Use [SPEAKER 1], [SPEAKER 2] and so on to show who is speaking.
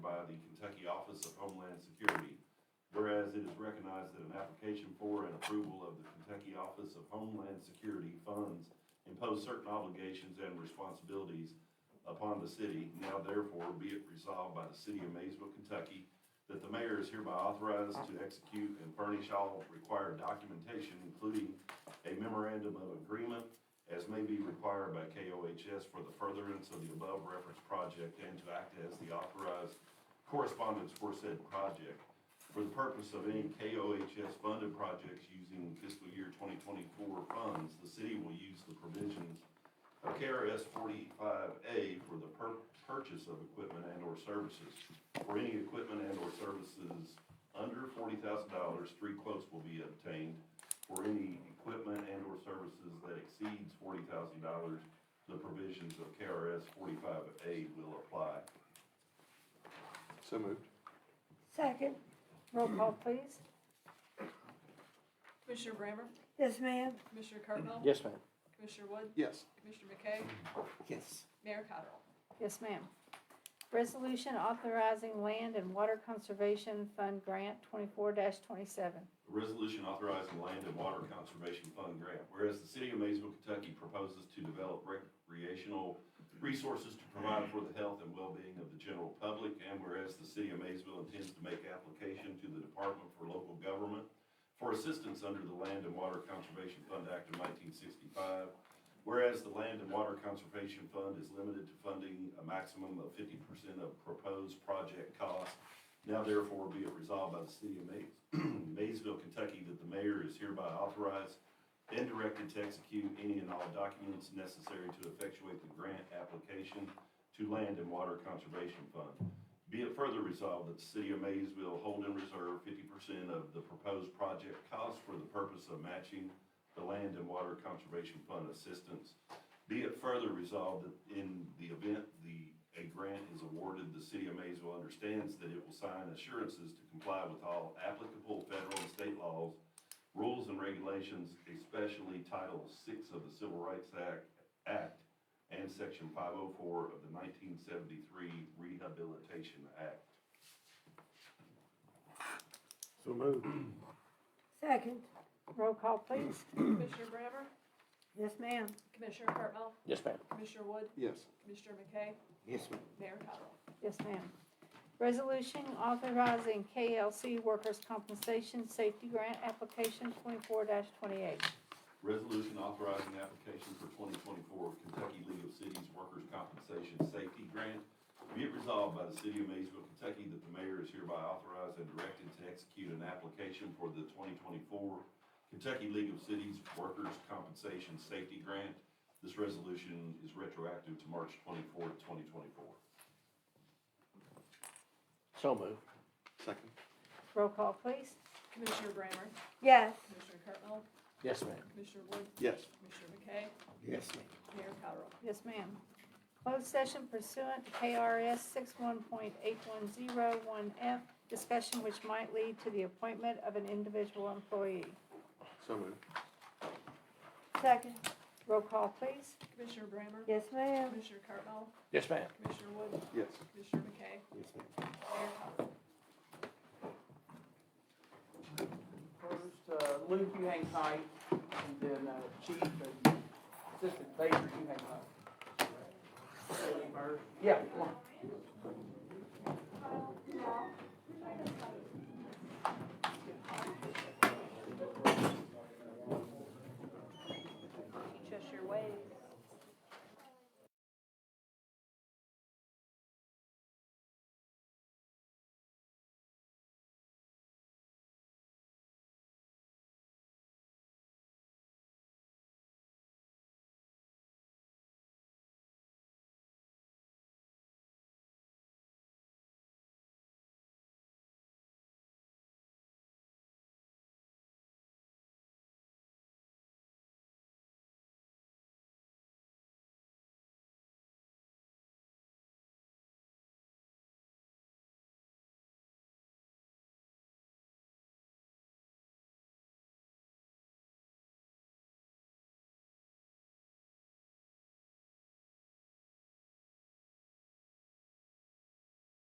[SPEAKER 1] recognize that an application for and approval of the Kentucky Office of Homeland Security funds impose certain obligations and responsibilities upon the city. Now therefore be it resolved by the city of Maysville, Kentucky, that the mayor is hereby authorized to execute and furnish all required documentation, including a memorandum of agreement as may be required by KOHS for the furtherance of the above referenced project and to act as the authorized correspondence for said project for the purpose of any KOHS funded projects using fiscal year 2024 funds, the city will use the provisions of KRS 45A for the pur- purchase of equipment and/or services. For any equipment and/or services under $40,000, three quotes will be obtained. For any equipment and/or services that exceeds $40,000, the provisions of KRS 45A will apply.
[SPEAKER 2] So moved.
[SPEAKER 3] Second, roll call please.
[SPEAKER 4] Commissioner Brammer?
[SPEAKER 3] Yes, ma'am.
[SPEAKER 4] Commissioner Cardinal?
[SPEAKER 2] Yes, ma'am.
[SPEAKER 4] Commissioner Wood?
[SPEAKER 2] Yes.
[SPEAKER 4] Commissioner McKay?
[SPEAKER 2] Yes.
[SPEAKER 4] Mayor Cottrell?
[SPEAKER 5] Yes, ma'am. Resolution authorizing land and water conservation fund grant twenty-four twenty-seven.
[SPEAKER 1] A Resolution authorizing land and water conservation fund grant. Whereas the city of Maysville, Kentucky proposes to develop recreational resources to provide for the health and well-being of the general public. And whereas the city of Maysville intends to make application to the Department for Local Government for assistance under the Land and Water Conservation Fund Act of nineteen sixty-five. Whereas the Land and Water Conservation Fund is limited to funding a maximum of fifty percent of proposed project cost. Now therefore be it resolved by the city of Mays, Maysville, Kentucky, that the mayor is hereby authorized and directed to execute any and all documents necessary to effectuate the grant application to Land and Water Conservation Fund. Be it further resolved that the city of Maysville hold in reserve fifty percent of the proposed project cost for the purpose of matching the Land and Water Conservation Fund assistance. Be it further resolved that in the event the, a grant is awarded, the city of Maysville understands that it will sign assurances to comply with all applicable federal and state laws, rules and regulations, especially Title VI of the Civil Rights Act, Act and Section 504 of the 1973 Rehabilitation Act.
[SPEAKER 2] So moved.
[SPEAKER 3] Second,
[SPEAKER 5] Roll call, please.
[SPEAKER 4] Commissioner Brammer?
[SPEAKER 3] yes, ma'am.
[SPEAKER 4] Commissioner Cardinal?
[SPEAKER 2] Yes, ma'am.
[SPEAKER 4] Commissioner Wood?
[SPEAKER 2] Yes.
[SPEAKER 4] Commissioner McKay?
[SPEAKER 2] Yes, ma'am.
[SPEAKER 4] Mayor Cottrell?
[SPEAKER 5] Yes, ma'am. Resolution authorizing KLC workers' compensation safety grant application twenty-four twenty-eight.
[SPEAKER 1] Resolution authorizing application for 2024 Kentucky League of Cities Workers' Compensation Safety Grant. Be it resolved by the City of Maysville, Kentucky, that the mayor is hereby authorized and directed to execute an application for the 2024 Kentucky League of Cities Workers' Compensation Safety Grant. This resolution is retroactive to March 24, 2024.
[SPEAKER 2] So moved. Second.
[SPEAKER 5] Roll call, please.
[SPEAKER 4] Commissioner Brammer?
[SPEAKER 3] Yes,
[SPEAKER 4] Commissioner Cardinal?
[SPEAKER 2] Yes, ma'am.
[SPEAKER 4] Commissioner Wood?
[SPEAKER 2] Yes.
[SPEAKER 4] Commissioner McKay?
[SPEAKER 2] Yes, ma'am.
[SPEAKER 4] Mayor Cottrell?
[SPEAKER 5] Yes, ma'am. Closed session pursuant to KRS six-one point eight-one-zero-one-F, discussion which might lead to the appointment of an individual employee.
[SPEAKER 2] So moved.
[SPEAKER 3] second,
[SPEAKER 5] Roll call, please.
[SPEAKER 4] Commissioner Brammer?
[SPEAKER 3] yes, ma'am.
[SPEAKER 4] Commissioner Cardinal?
[SPEAKER 2] Yes, ma'am.
[SPEAKER 4] Commissioner Wood?
[SPEAKER 2] Yes.
[SPEAKER 4] Commissioner McKay?
[SPEAKER 2] Yes, ma'am.
[SPEAKER 4] Mayor Cottrell?
[SPEAKER 6] First, uh, Luke, you hang tight, and then uh, Chief and Assistant Baker, you hang tight. Yeah, come on.